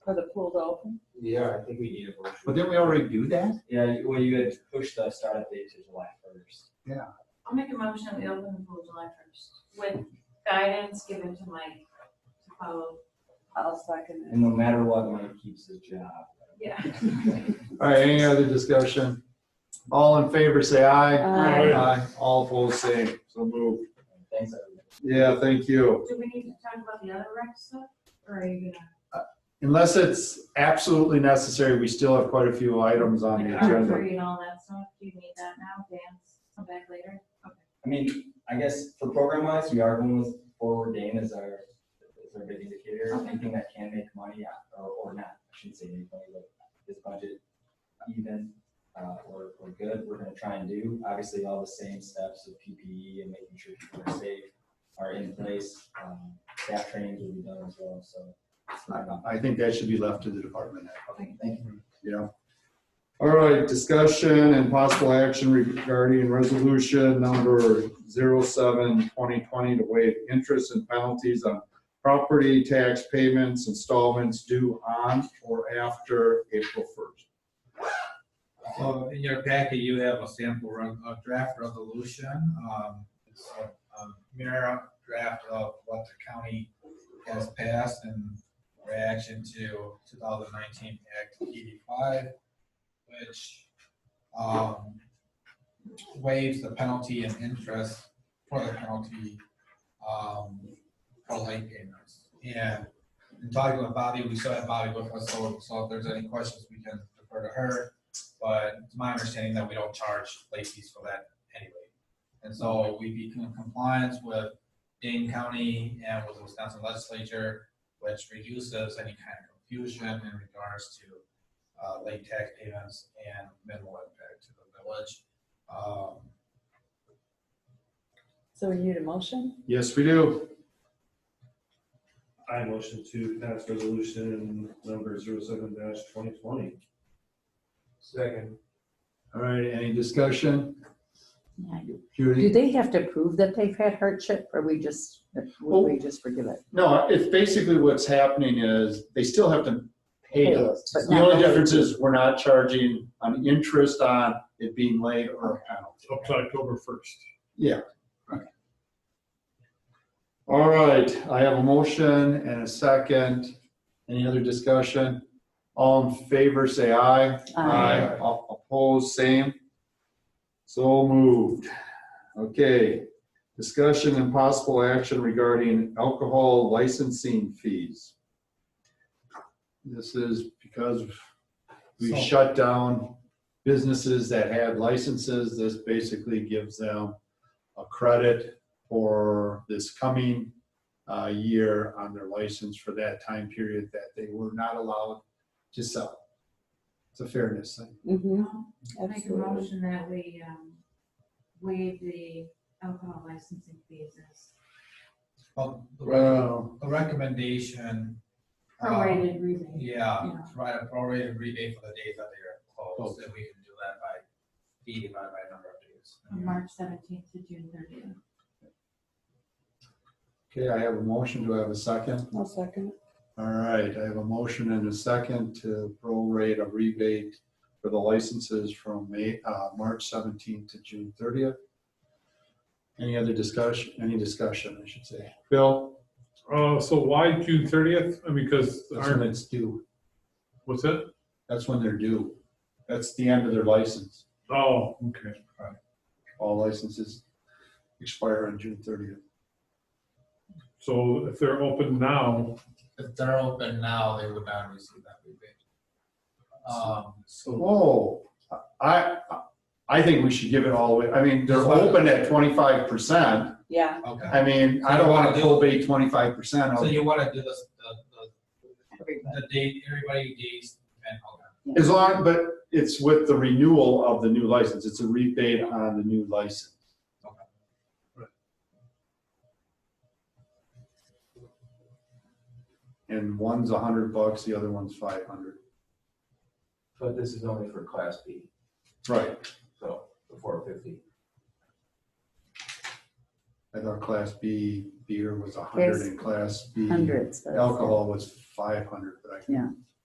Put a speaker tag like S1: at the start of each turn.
S1: for the pool to open?
S2: Yeah, I think we need a motion.
S3: But didn't we already do that?
S2: Yeah, you- well, you had pushed the startup date to July first.
S4: I'll make a motion that we open the pool July first with guidance given to Mike to follow.
S1: I'll second
S2: And no matter what, Mike keeps his job.
S4: Yeah.
S3: All right, any other discussion? All in favor, say
S1: it.
S3: aye.
S1: Uh,
S3: Aye. All opposed, say so moved.
S2: Thanks, everyone.
S3: Yeah, thank you.
S4: Do we need to talk about the other rec stuff or are you gonna?
S3: Unless it's absolutely necessary, we still have quite a few items on the
S4: Like
S3: agenda.
S4: archery and all that stuff, do you need that now, dance, come back later? Okay.
S2: I mean, I guess for program wise, we are going with forward game as our, as our big indicator.
S4: Okay.
S2: Anything that can make money uh, or, or not, I shouldn't say make money, but this budget even, uh, or, or good, we're gonna try and do. Obviously, all the same steps of PPE and making sure people are safe are in place. Um, Staff trainings will be done as well, so. it's not about-
S3: I think that should be left to the department head.
S2: Okay, thank you.
S3: Yeah. All right, discussion and possible action regarding resolution number 07-2020 to waive interest and penalties on property tax payments installments due on or after April first.
S5: So in your packet, you have a sample, re- a draft resolution. um, It's a a mirror draft of what the county has passed in reaction to 2019 Act 85, which um, waives the penalty and interest for the penalty um, for late payments. And in talking with Bobby, we still have Bobby with us, so so if there's any questions, we can defer to her but it's my understanding that we don't charge late fees for that anyway. And so we'd be in compliance with Dane County and with the Wisconsin legislature, which reduces any kind of confusion in regards to uh, late tax payments and minimal impact to the village. Um,
S1: So we need a motion?
S3: Yes, we do.
S6: I motion to pass resolution number zero seven dash twenty twenty.
S2: Second.
S3: All right, any discussion?
S7: Do
S3: Judy?
S7: they have to prove that they've had hardship, or we just,
S3: Well-
S7: would
S1: Oh.
S7: we just forgive it?
S3: No, it's basically what's happening is they still have to pay us.
S7: But
S3: The only
S7: not-
S3: difference is we're not charging an interest on it being late or a penalty.
S6: Up to October first.
S3: All right, I have a motion and a second. Any other discussion? All in favor, say aye.
S7: Aye.
S3: All Opposed, same. So moved. Okay, discussion and possible action regarding alcohol licensing fees. This is because we
S5: So-
S3: shut down businesses that had licenses. This basically gives them a credit for this coming uh, year on their license for that time period that they were not allowed to sell. It's a fairness thing.
S1: Mm-hmm.
S4: I'll Make a motion that we, um, waive the alcohol licensing fees as
S5: well, The
S3: Well,
S5: the recommendation. um,
S4: prorated rebate.
S5: Yeah,
S4: Yeah.
S5: provide a prorated rebate for the days that they are closed,
S3: Closed.
S5: and we can do that by fee divided by number of days.
S4: From March seventeenth to June thirtieth.
S3: okay, I have a motion. Do I have a second?
S1: I'll second.
S3: All right, I have a motion and a second to prorate a rebate for the licenses from May, uh, March seventeenth to June thirtieth. Any other discussion, any discussion, I should say. Bill,
S6: Uh, so why June thirtieth? I mean, because
S3: that's when
S6: aren't,
S3: it's due.
S6: what's it?
S3: That's when they're due. That's the end of their license.
S6: Oh, okay.
S3: All licenses expire on June thirtieth.
S6: So if they're open now,
S5: If they're open now, they would not receive that rebate. Um,
S3: Whoa, I, I think we should give it all the way. I mean, they're open at twenty-five percent.
S1: Yeah,
S5: okay,
S3: I mean, I don't want to probate twenty-five percent
S5: so
S3: of,
S5: you wanna do this, the,
S1: everybody.
S5: the, the date, everybody dates, and, okay,
S3: as long, but it's with the renewal of the new license. It's a rebate on the new license. And one's a hundred bucks, the other one's five hundred.
S2: But this is only for class B,
S3: Right,
S2: so the four fifty.
S3: I thought class B beer was a hundred
S7: Yes.
S3: and class B
S7: Hundreds. but-
S3: alcohol was five hundred, but I.
S7: Yeah.